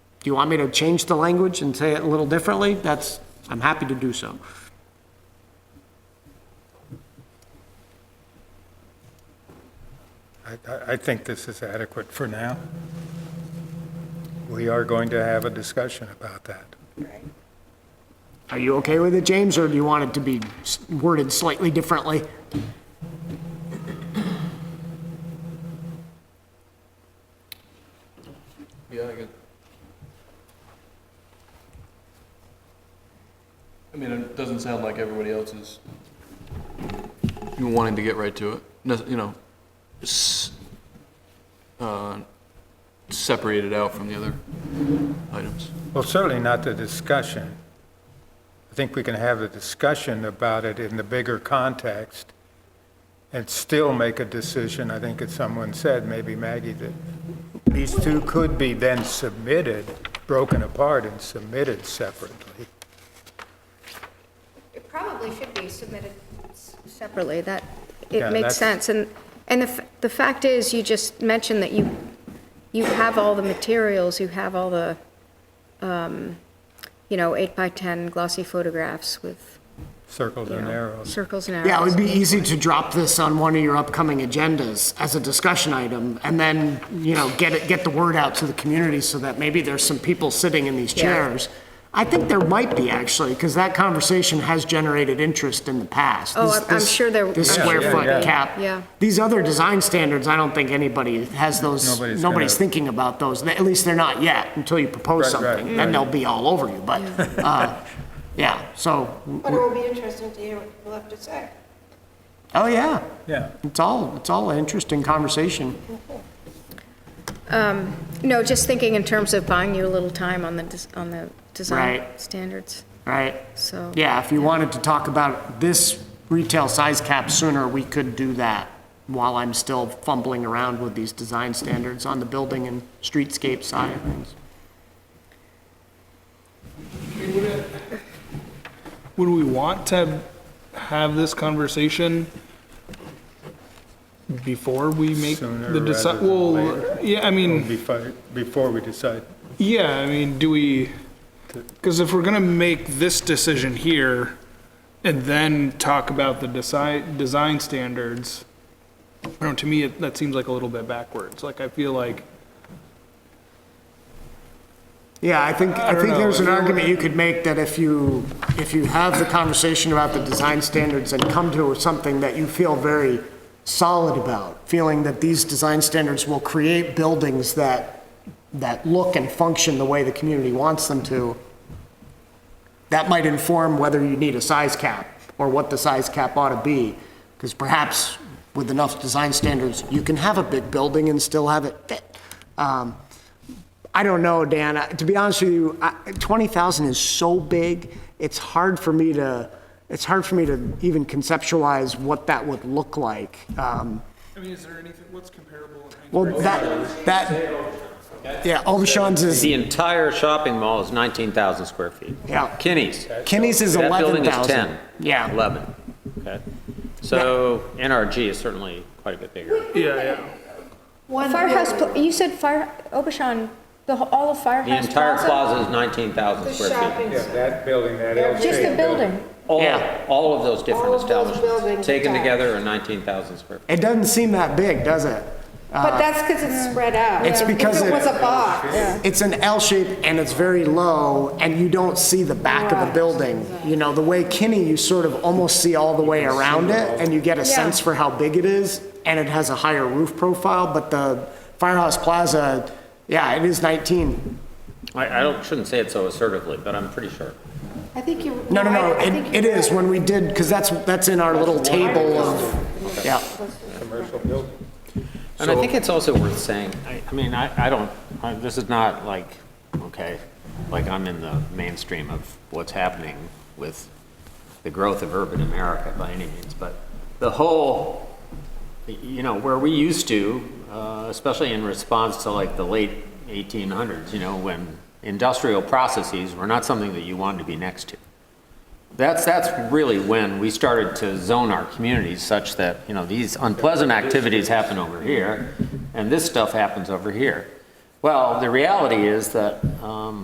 Do you want me to change the language and say it a little differently? That's, I'm happy to do so. I- I, I think this is adequate for now. We are going to have a discussion about that. Are you okay with it, James, or do you want it to be s- worded slightly differently? Yeah, I get. I mean, it doesn't sound like everybody else is wanting to get right to it, No- you know, s- uh, separate it out from the other items. Well, certainly not the discussion. I think we can have a discussion about it in the bigger context and still make a decision. I think as someone said, maybe Maggie, that these two could be then submitted, broken apart and submitted separately. It probably should be submitted s- separately, that, Yeah, it makes that's- sense. And, and the, f- the fact is, you just mentioned that you, you have all the materials, you have all the, um, you know, eight by 10 glossy photographs with, Circles you and know, arrows. circles and arrows. Yeah, it would be easy to drop this on one of your upcoming agendas as a discussion item, and then, you know, get it, get the word out to the community so that maybe there's some people sitting in these Yeah. chairs. I think there might be, actually, because that conversation has generated interest in the past. Oh, This- I'm- I'm this- sure there- This I'm sure square there foot will be. cap. Yeah. These other design standards, I don't think anybody has those, Nobody's nobody's gonna- thinking about those, at least they're not yet, until you propose Right, right, something. Then right. they'll be all over you, but, uh, yeah, so, But it will be interesting to hear what people have to say. oh, yeah. Yeah. It's all, it's all an interesting conversation. No, just thinking in terms of buying you a little time on the, des- on the design Right. standards, Right. so. Yeah, if you wanted to talk about this retail size cap sooner, we could do that while I'm still fumbling around with these design standards on the building and streetscape side of things. Would we want to have this conversation before we make Sooner the rather decide? than Well, later. yeah, I mean, Before, before we decide. yeah, I mean, do we, because if we're gonna make this decision here and then talk about the design, design standards, I don't know, to me, it- that seems like a little bit backwards. Like, I feel like, Yeah, I think, I don't think know. there's an If you- argument you could make that if you, if you have the conversation about the design standards and come to something that you feel very solid about, feeling that these design standards will create buildings that, that look and function the way the community wants them to, that might inform whether you need a size cap or what the size cap ought to be. Because perhaps with enough design standards, you can have a big building and still have it fit. Um, I don't know, Dan. I- To be honest with you, I- 20,000 is so big, it's hard for me to, it's hard for me to even conceptualize what that would look like. Um, I mean, is there anything, what's comparable? Well, that, that, yeah, Obashan's is, The entire shopping mall is 19,000 square feet. Yeah. Kinney's. Kinney's is That building 11,000. is 10. Yeah. 11, okay. So NRG is certainly quite a bit bigger. Yeah, yeah. Firehouse, pl- you said fire, Obashan, the, whole- all of The Firehouse entire Plaza? plaza is 19,000 The square feet. shopping, Yeah, center, that building, that Just the L-shaped building. building. All, Yeah. all of those All different of those establishments, buildings taken are- together, are 19,000 square feet. it doesn't seem that big, does it? but that's because it's spread out. It's because If it- it was a box, It's an L shape and it's very low and you don't see the back of the building. You know, the way Kinney, you sort of almost see all the way around it and you get a sense for how big it is and it has a higher roof profile, but the Firehouse Plaza, yeah, it is 19. I, I don't, shouldn't say it so assertively, but I'm pretty sure. I think you. No, no, no, I- I it, think you- it is when we did, because that's, that's in our little table of, yeah. And I think it's also worth saying, I, I mean, I, I don't, I- this is not like, okay, like I'm in the mainstream of what's happening with the growth of urban America by any means, but the whole, you know, where we used to, uh, especially in response to like the late 1800s, you know, when industrial processes were not something that you wanted to be next to. That's, that's really when we started to zone our communities such that, you know, these unpleasant activities happen over here, and this stuff happens over here. Well, the reality is that, um,